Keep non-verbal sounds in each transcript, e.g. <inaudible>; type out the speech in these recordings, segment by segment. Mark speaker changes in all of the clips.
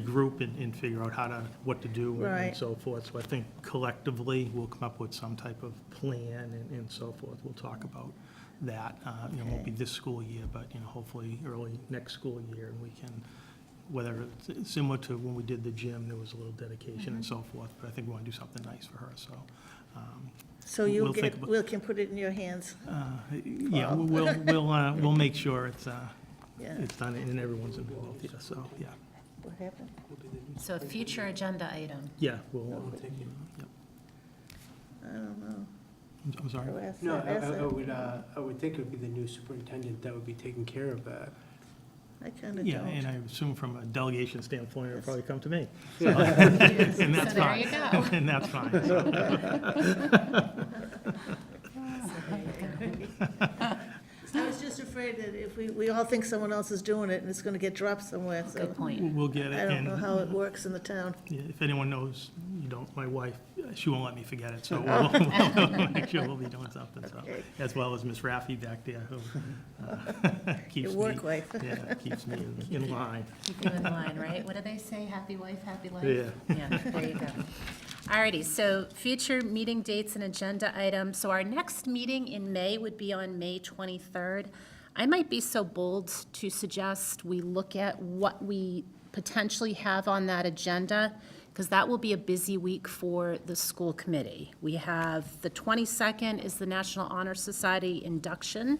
Speaker 1: regroup and, and figure out how to, what to do and- and
Speaker 2: Right.
Speaker 1: so forth. So I think collectively, we'll come up with some type of plan and, and so forth. We'll talk about that. Uh, You know, it won't be this school year, but, you know, hopefully early next school year, and we can, whether, it's similar to when we did the gym, there was a little dedication and
Speaker 2: Mm-hmm.
Speaker 1: so forth, but I think we want to do something nice for her, so. um,
Speaker 2: So
Speaker 1: We'll
Speaker 2: you'll
Speaker 1: think
Speaker 2: get,
Speaker 1: about-
Speaker 2: Will can put it in your hands,
Speaker 1: uh, Yeah, we'll, we'll, we'll,
Speaker 2: <laughs>
Speaker 1: uh, we'll make sure it's, uh,
Speaker 2: yeah.
Speaker 1: it's done and everyone's involved, yeah, so, yeah.
Speaker 2: What happened?
Speaker 3: So a future agenda item.
Speaker 1: Yeah, we'll, uh, yeah.
Speaker 2: I don't know.
Speaker 1: I'm- I'm sorry.
Speaker 2: Go ask-
Speaker 4: No, I-
Speaker 2: ask
Speaker 4: I, I
Speaker 2: her.
Speaker 4: would, uh, I would think it would be the new superintendent that would be taking care of that.
Speaker 2: I kind of
Speaker 1: Yeah, and I
Speaker 2: don't.
Speaker 1: assume from a delegation standpoint, it'll probably come to
Speaker 2: <laughs>
Speaker 1: me. <laughs>
Speaker 3: So
Speaker 1: And that's
Speaker 3: there
Speaker 1: fine.
Speaker 3: you go.
Speaker 1: <laughs> And that's fine.
Speaker 2: <laughs>
Speaker 1: so.
Speaker 2: I was just afraid that if we, we all think someone else is doing it and it's going to get dropped somewhere, so
Speaker 3: Good point.
Speaker 1: We'll get it.
Speaker 2: I don't know
Speaker 1: And
Speaker 2: how it works in the town.
Speaker 1: yeah, if anyone knows, you don't, my wife, she won't let me forget
Speaker 2: <laughs>
Speaker 1: it, so we'll <laughs> we'll make sure we'll be doing something, so.
Speaker 2: Okay.
Speaker 1: As well as Miss Raffy back there, who uh, <laughs> keeps
Speaker 2: Your
Speaker 1: me.
Speaker 2: work life.
Speaker 1: Yeah, keeps me in-
Speaker 2: <laughs>
Speaker 1: in line.
Speaker 3: Keep you in line, right? What do they say? Happy wife, happy life?
Speaker 1: Yeah.
Speaker 3: Yeah, there you go. Alrighty, so future meeting dates and agenda items. So our next meeting in May would be on May 23rd. I might be so bold to suggest we look at what we potentially have on that agenda, because that will be a busy week for the school committee. We have, the 22nd is the National Honor Society induction,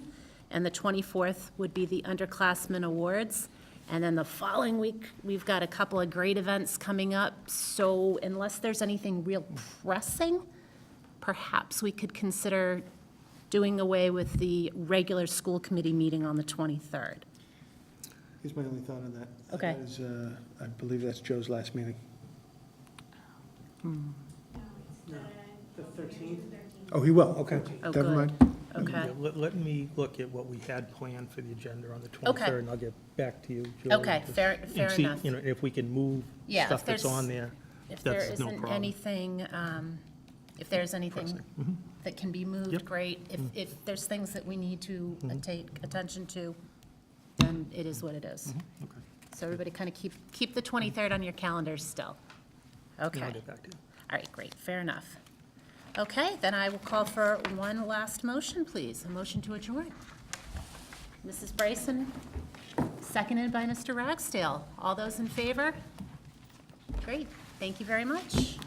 Speaker 3: and the 24th would be the underclassmen awards. And then the following week, we've got a couple of great events coming up. So unless there's anything real pressing, perhaps we could consider doing away with the regular school committee meeting on the 23rd.
Speaker 5: Here's my only thought on that.
Speaker 3: Okay.
Speaker 5: That is, uh, I believe that's Joe's last meeting.
Speaker 3: Oh, hmm.
Speaker 4: The thirteenth?
Speaker 5: Oh, he will, okay.
Speaker 3: Oh,
Speaker 5: Never
Speaker 3: good.
Speaker 5: mind.
Speaker 3: Okay,
Speaker 1: Yeah, Let, let me look at what we had planned for the agenda on the
Speaker 3: Okay.
Speaker 1: 23rd, and I'll get back to you, Julie.
Speaker 3: Okay,
Speaker 1: to-
Speaker 3: fair-
Speaker 1: and
Speaker 3: fair
Speaker 1: see,
Speaker 3: enough.
Speaker 1: You know, if we can move
Speaker 3: Yeah, if
Speaker 1: stuff that's
Speaker 3: there's-
Speaker 1: on there.
Speaker 3: if there
Speaker 1: That's no
Speaker 3: isn't
Speaker 1: problem.
Speaker 3: anything, um, if there's anything that can be moved,
Speaker 1: Yep. Mm. Mm-hmm.
Speaker 3: great. If, if there's things that we need to take attention to, then it is what it is.
Speaker 1: Okay.
Speaker 3: So everybody kind of keep, keep the 23rd on your calendars still.
Speaker 1: Yeah, I'll
Speaker 3: Okay,
Speaker 1: get back to you.
Speaker 3: all right, great, fair enough. Okay, then I will call for one last motion, please, a motion to adjourn. Mrs. Bryson, seconded by Mr. Ragsdale. All those in favor? Great, thank you very much.